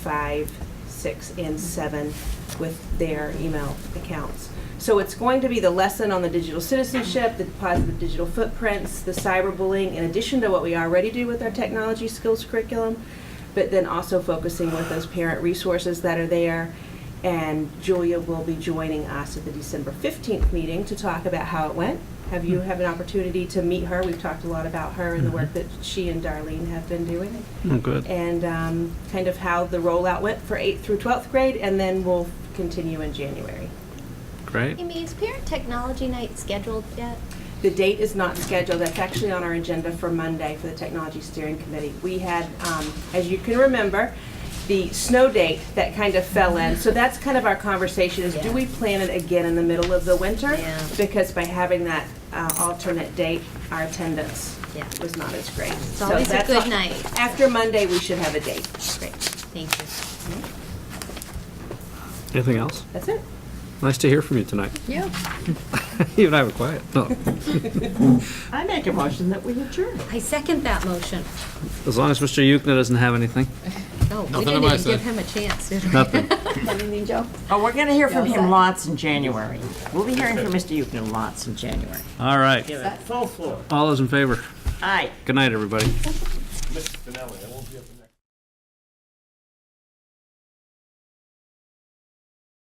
five, six, and seven with their email accounts. So it's going to be the lesson on the digital citizenship, the positive digital footprints, the cyberbullying, in addition to what we already do with our technology skills curriculum, but then also focusing with those parent resources that are there. And Julia will be joining us at the December 15th meeting to talk about how it went. Have you have an opportunity to meet her? We've talked a lot about her and the work that she and Darlene have been doing Oh, good. and um, kind of how the rollout went for 8th through 12th grade, and then we'll continue in January. Great. Amy, is Parent Technology Night scheduled yet? The date is not scheduled, that's actually on our agenda for Monday for the Technology Steering Committee. We had, um, as you can remember, the snow date that kind of fell in, so that's kind of our conversation, is do Yeah. we plan it again in the middle of the winter? Yeah. Because by having that uh, alternate date, our attendance Yeah. was not as great. It's always a good night. After Monday, we should have a date. Great, thank you. Anything else? That's it. Nice to hear from you tonight. Yeah. you and I were quiet. No, I make a motion that we adjourn. I second that motion. as long as Mr. Yukna doesn't have anything. Oh, we Nothing didn't on my even side. give him a chance, did we? Nothing. Oh, we're gonna hear from him lots in January. We'll be hearing from Mr. Yukna lots in January. All right. Give it full floor. All those in favor. Aye. Good night, everybody. Mr. Finelli, I won't be up in